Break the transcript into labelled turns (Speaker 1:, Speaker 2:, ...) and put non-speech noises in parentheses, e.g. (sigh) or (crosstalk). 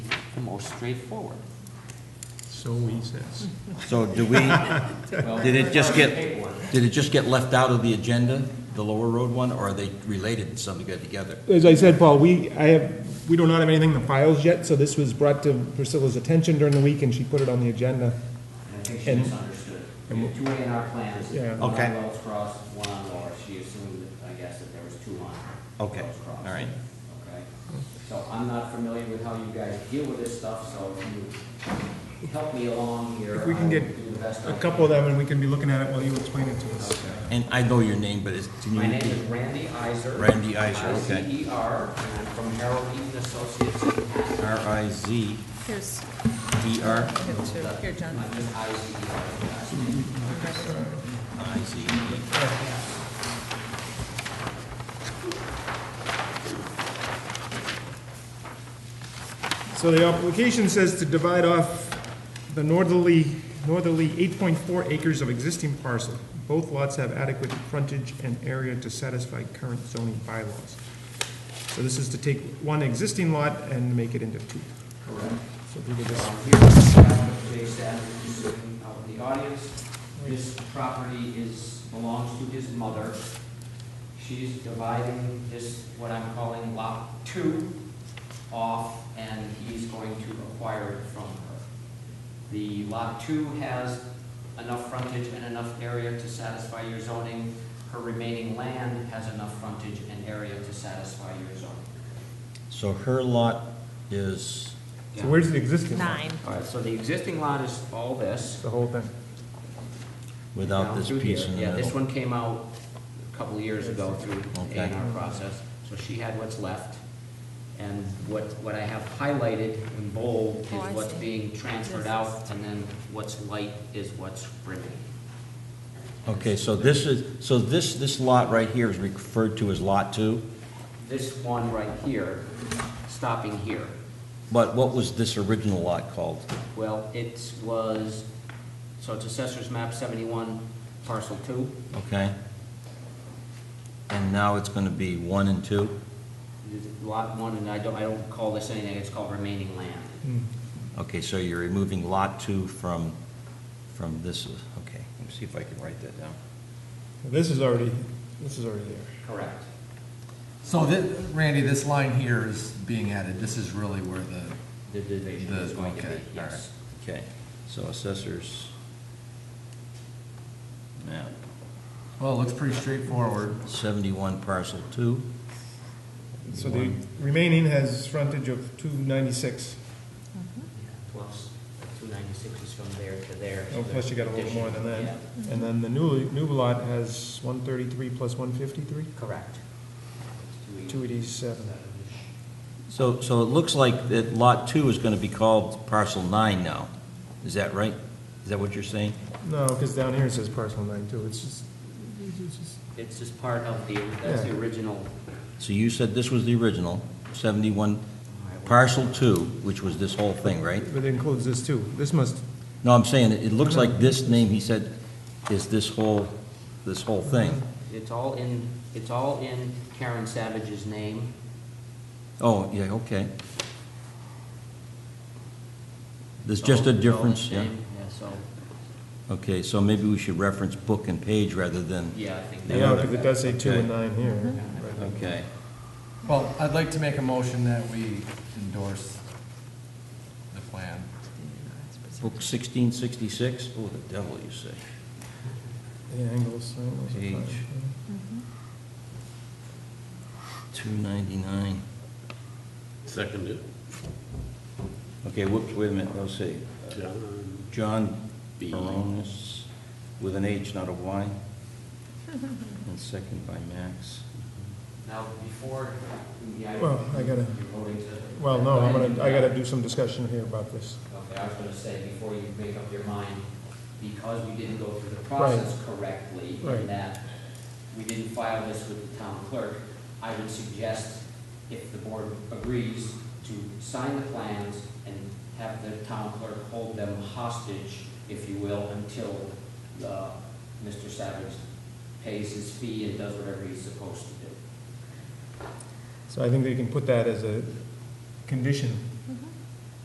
Speaker 1: more straightforward.
Speaker 2: So he says.
Speaker 3: So do we, did it just get, did it just get left out of the agenda, the Lower Road one, or are they related in some degree together?
Speaker 4: As I said, Paul, we, I have, we do not have anything in the files yet, so this was brought to Priscilla's attention during the week, and she put it on the agenda.
Speaker 1: And I think she
Speaker 4: And-
Speaker 1: misunderstood. We have two A and R plans,
Speaker 4: Yeah.
Speaker 1: one
Speaker 3: Okay.
Speaker 1: on Wells Cross, one on Laura. She assumed, I guess, that there was two on
Speaker 3: Okay,
Speaker 1: Wells Cross.
Speaker 3: all right.
Speaker 1: Okay? So I'm not familiar with how you guys deal with this stuff, so if you help me along here.
Speaker 4: If we can
Speaker 1: I will
Speaker 4: get
Speaker 1: do the best I
Speaker 4: A couple of them, and we can be looking at it while you explain it to us.
Speaker 1: Okay.
Speaker 3: And I know your name, but it's, can you
Speaker 1: My name is
Speaker 3: repeat?
Speaker 1: Randy Iser.
Speaker 3: Randy Iser, okay.
Speaker 1: I-C-E-R, and I'm from Harold Eaton Associates.
Speaker 3: R I Z
Speaker 5: Here's,
Speaker 3: E R
Speaker 5: here too, here, John.
Speaker 1: I'm just I-C-E-R.
Speaker 3: I Z E.
Speaker 4: So the application says to divide off the northerly, northerly 8.4 acres of existing parcel. Both lots have adequate frontage and area to satisfy current zoning bylaws. So this is to take one existing lot and make it into two.
Speaker 1: Correct.
Speaker 4: So if you could just-
Speaker 1: Um, Here's Jay Savage, who's sitting out in the audience. This property is, belongs to his mother. She's dividing this, what I'm calling lot two, off, and he's going to acquire it from her. The lot two has enough frontage and enough area to satisfy your zoning. Her remaining land has enough frontage and area to satisfy your zoning.
Speaker 3: So her lot is,
Speaker 4: So where's the existing lot?
Speaker 5: Nine.
Speaker 1: All right, so the existing lot is all this.
Speaker 4: The whole thing.
Speaker 3: without
Speaker 1: down
Speaker 3: this
Speaker 1: through
Speaker 3: piece
Speaker 1: here.
Speaker 3: in the
Speaker 1: Yeah, this
Speaker 3: middle.
Speaker 1: one came out a couple of years ago through A
Speaker 3: Okay.
Speaker 1: and R process, so she had what's left. And what, what I have highlighted in bold is
Speaker 5: Oh, I
Speaker 1: what's
Speaker 5: see.
Speaker 1: being transferred
Speaker 5: This
Speaker 1: out, and then what's light is what's remaining.
Speaker 3: Okay, so this is, so this, this lot right here is referred to as Lot Two,
Speaker 1: This one right here, stopping here,
Speaker 3: but what was this original lot called?
Speaker 1: well, it was, so it's assessor's map seventy-one, parcel two.
Speaker 3: Okay? And now it's gonna be one and two?
Speaker 1: Lot one, and I don't, I don't call this anything, it's called remaining land.
Speaker 3: Okay, so you're removing Lot 2 from, from this, okay, let me see if I can write that down.
Speaker 4: This is already, this is already there.
Speaker 1: Correct.
Speaker 6: So thi- Randy, this line here is being added, this is really where the,
Speaker 1: The division
Speaker 6: The-
Speaker 1: is going to be,
Speaker 6: okay, all
Speaker 1: yes.
Speaker 3: Okay, so assessors. Map,
Speaker 6: well, it looks pretty straightforward.
Speaker 3: 71 parcel 2,
Speaker 4: So the remaining has frontage of 296.
Speaker 1: Plus, two ninety-six is from there to there.
Speaker 4: Oh, plus you got a little more than that.
Speaker 1: Yeah,
Speaker 4: And then the new, new lot has 133 plus 153,
Speaker 1: Correct.
Speaker 4: 287.
Speaker 3: so, so it looks like that Lot 2 is going to be called parcel 9 now, is that right? Is that what you're saying?
Speaker 4: No, because down here it says parcel nine too, it's just, it's just,
Speaker 1: It's just part of the, that's the
Speaker 4: Yeah.
Speaker 1: original.
Speaker 3: So you said this was the original, 71 parcel 2, which was this whole thing, right?
Speaker 4: but it includes this too. This must,
Speaker 3: No, I'm saying, it it looks like this name, he said, is this whole, this whole thing.
Speaker 1: It's all in, it's all in Karen Savage's name.
Speaker 3: Oh, yeah, okay. There's
Speaker 1: So
Speaker 3: just a
Speaker 1: it's all
Speaker 3: difference,
Speaker 1: the
Speaker 3: yeah.
Speaker 1: Oh, same, Yeah, so,
Speaker 3: Okay, so maybe we should reference book and page rather than,
Speaker 1: yeah, I think. that-
Speaker 4: yeah, because it does say two
Speaker 3: Okay.
Speaker 4: and nine here.
Speaker 3: okay.
Speaker 6: Well, I'd like to make a motion that we endorse the plan.
Speaker 3: Book 1666, oh, the devil, you say.
Speaker 4: The angles, angles.
Speaker 3: Page. 299.
Speaker 7: Seconded,
Speaker 3: Okay, whoops, wait a minute, let's see.
Speaker 7: John.
Speaker 3: John
Speaker 7: B.
Speaker 1: Uh-huh.
Speaker 3: Baronis, with an H, not a Y. (laughs) And second by Max.
Speaker 1: Now, before, yeah.
Speaker 4: Well, I gotta-
Speaker 1: You're voting to.
Speaker 4: Well, no, I'm gonna, I gotta do some discussion here about this.
Speaker 1: Okay, I was gonna say, before you make up your mind, because we didn't go through the process correctly,
Speaker 4: Right.
Speaker 1: in that we didn't file this with the town clerk, I would suggest, if the board agrees, to sign the plans and have the town clerk hold them hostage, if you will, until, uh, Mr. Savage pays his fee and does whatever he's supposed to do.
Speaker 4: So I think they can put that as a condition